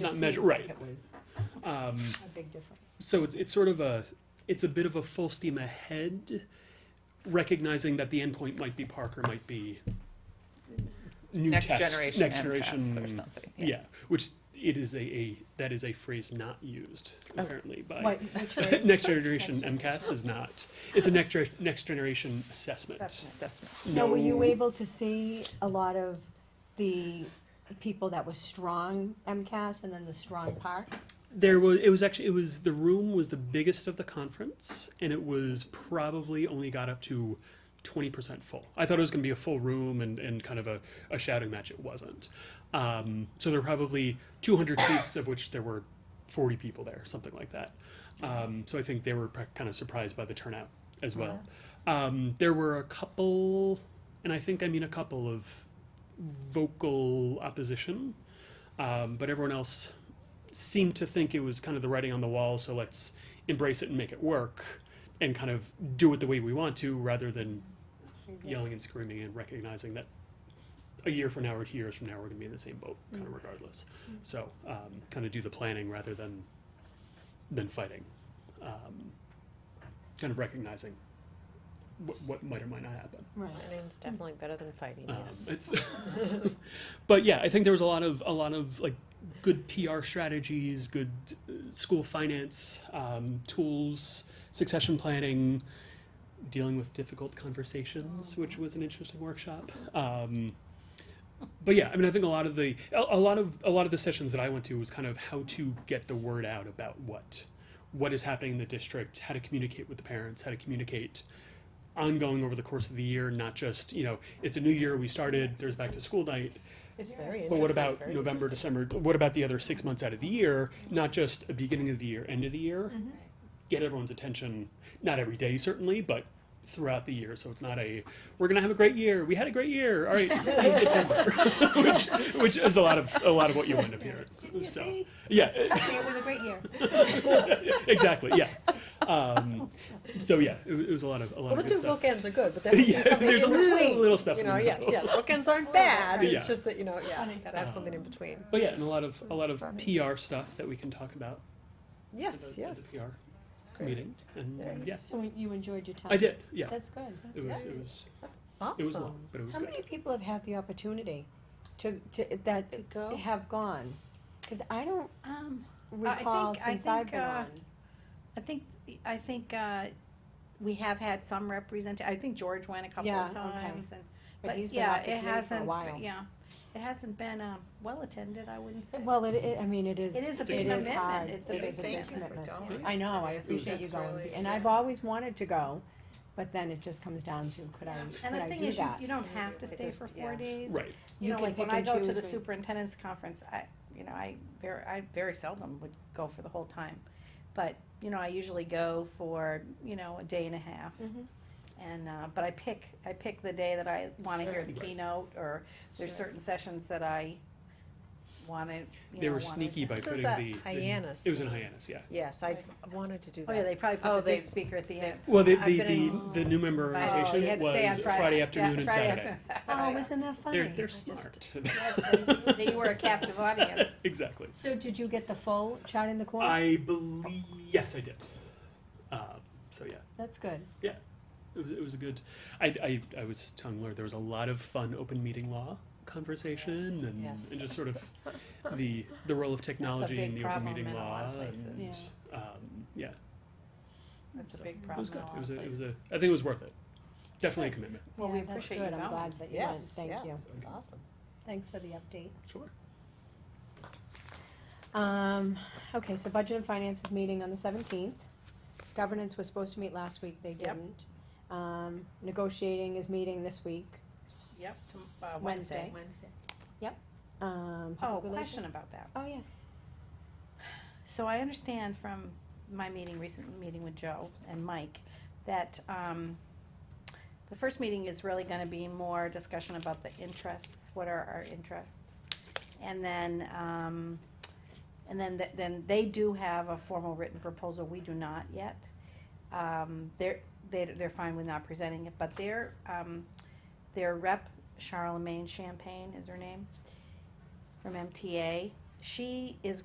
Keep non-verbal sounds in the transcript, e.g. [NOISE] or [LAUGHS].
not seemed measure, like right. It was Um, a big difference. so it's, it's sort of a, it's a bit of a full steam ahead, recognizing that the endpoint might be Parker, might be new next test, generation next MCAS generation, or something. Yeah. which it is a, a that is a phrase not used Oh. apparently by [LAUGHS] What- which was- next generation Next MCAS is not. It's a next gen- next generation assessment. Assessment. Assessment. Now, were you able to see a lot of the people that were strong MCAS and then the strong part? There was it was actually it was the room was the biggest of the conference and it was probably only got up to 20% full. I thought it was going to be a full room and, and kind of a, a shouting match. It wasn't. Um, so there were probably 200 seats, of which there were 40 people there, something like that. Um, so I think they were pre- kind of surprised by the turnout as well. Um, there were a couple, and I think I mean a couple of vocal opposition, um, but everyone else seemed to think it was kind of the writing on the wall, so let's embrace it and make it work and kind of do it the way we want to rather than yelling and screaming and recognizing that a year from now or two years from now we're going to be in the same boat kind of regardless so um, kind of do the planning rather than than fighting um, kind of recognizing what, what might or might not happen Right. I mean, it's definitely better than fighting, um, yes. it's [LAUGHS] but yeah, I think there was a lot of a lot of like good PR strategies, good uh, school finance um, tools, succession planning, dealing with difficult conversations, which was an interesting workshop. Um, but yeah, I mean, I think a lot of the a, a lot of a lot of the sessions that I went to was kind of how to get the word out about what what is happening in the district, how to communicate with the parents, how to communicate ongoing over the course of the year, not just you know it's a new year we started, there's back to school night, It's very but what interesting, about very November, interesting. December? What about the other six months out of the year? Not just a beginning of the year, end of the Mm-hmm. year. Get everyone's attention, not every day certainly, but throughout the year. So it's not a we're gonna have a great year. We had a great year. All [LAUGHS] right, see you in September, [LAUGHS] which which is a lot of a lot of what you end up hearing. Didn't you So- see? Yeah, e, Trust me, it was a great year. exactly. Yeah. Um, so yeah, it, wa- it was a lot of a lot Well, the of two good stuff. bookends are [LAUGHS] good, but then there's Yeah, something there's a in little- between. little stuff You in know, the yes, middle. yes, bookends [LAUGHS] aren't bad, Yeah. it's just that, you know, yeah, Funny. gotta have something in Um, between. But yeah, and a lot of a lot That's of funny. PR stuff that we can talk about. at Yes, the- at yes. The PR meeting and Yes. yeah, So you enjoyed your time? I did. Yeah. That's good. It was, it was, it was long, Awesome. but it was How good. many people have had the opportunity to, to, that go? have gone? Because I don't Um, I recall think- I since I've think, been uh, on. I think, I think, uh, we have had some represent, I think George went a couple Yeah, of okay. times and, But but he's been yeah, off the it committee for a hasn't, while. yeah. It hasn't been, um, well attended, I wouldn't say. Well, it, it, I mean, it is. It is a big hard. commitment. It's a It big is thing. commitment. going. I know, I It appreciate was- you That's going, really- and I've always wanted to go, but then it just comes down to, could I, could And the I thing do is, you, that? you don't have to It stay just- for yeah. four days. Right. You You know, can like when pick I and go to choose the when- superintendent's conference, I, you know, I very, I very seldom would go for the whole time. But, you know, I usually go for, you know, a day and a half. Mhm. And, uh, but I pick, I pick the day that I wanna hear the Sure. Right. keynote, or there's Sure. certain sessions that I wanna, you They know, were wanna- sneaky by This putting is the. that the- Hyannis It was in thing. Hyannis, yeah. Yes, I wanted to do Oh, yeah, that. they probably Oh, put the they- big speaker at the they- end. Well, the, I've the, the, been the new member Right. Oh, you orientation had to stay on was Friday afternoon Yeah, and Friday Saturday. Oh, [LAUGHS] afternoon. isn't that funny? They're, they're smart. just- Yes, they- they were a captive [LAUGHS] audience. [LAUGHS] Exactly. So did you get the full shot in the course? I believe, yes, I did. Um, so yeah, That's good. it was, it was a good, I, I, I was tongue lured. There was a lot of fun open meeting law conversation and, yes. and just sort of the, the role of technology big in the open problem meeting in a lot law of places. and, um, yeah, That's a So, big it problem was in good. a lot It was of a, it was places. a, I think it was worth it. Definitely a commitment. Well, Yeah, we that's appreciate good. you I'm going. glad that you went, Yes, thank yeah, you. awesome. Thanks for the update. Sure. Um, okay, so Budget and Finance is meeting on the seventeenth. Governance was supposed to meet last week, they Yep. didn't. Um, negotiating is meeting this week. Yep, s- tom- uh, Wednesday. Wednesday. Um. Oh, public relations- question about that. Oh, yeah. So I understand from my meeting, recent meeting with Joe and Mike, that, um, the first meeting is really gonna be more discussion about the interests, what are our interests? And then, um, and then, th- then they do have a formal written proposal, we do not yet. Um, they're, they, they're fine with not presenting it, but their, um, their rep, Charlemagne Champagne is her name, from MTA, she is